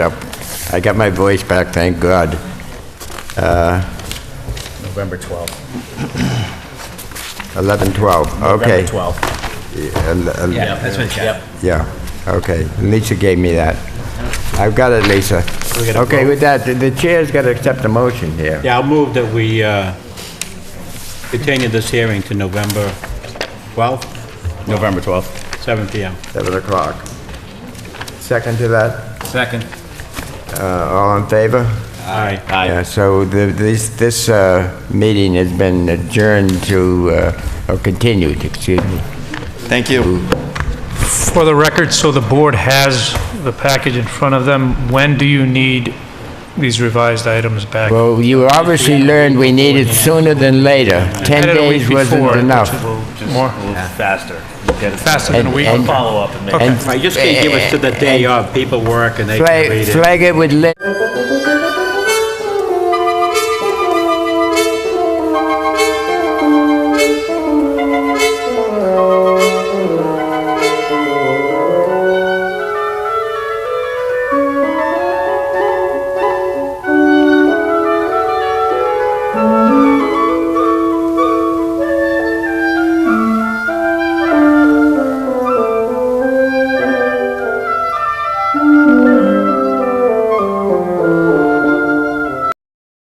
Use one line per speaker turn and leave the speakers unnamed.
Yep. I got my voice back, thank God.
November 12th.
11, 12, okay.
November 12th.
November 12.
Yeah, that's what it's got.
Yep.
Yeah, okay. Lisa gave me that. I've got it, Lisa.
gotta
Okay,
vote.
with that, the- the chair's got to accept the motion here.
Yeah, I'll move that we uh, continue this hearing to November 12th,
November 12th.
7 PM.
7 o'clock. Second to that,
Second.
Uh, all in favor?
Aye.
Yeah, so the- this, this uh, meeting has been adjourned to, uh, or continued, excuse me.
Thank you.
For the record, so the board has the package in front of them. When do you need these revised items back?
Well, you obviously learned we need it sooner than later. 10
Had it a week
days wasn't
before,
enough.
which will- More,
Faster.
faster than a
And-
week.
and-
Follow up and make
And
Right, just gonna give us to the day of, people work and they can
flag
read it.
flag it with... lit-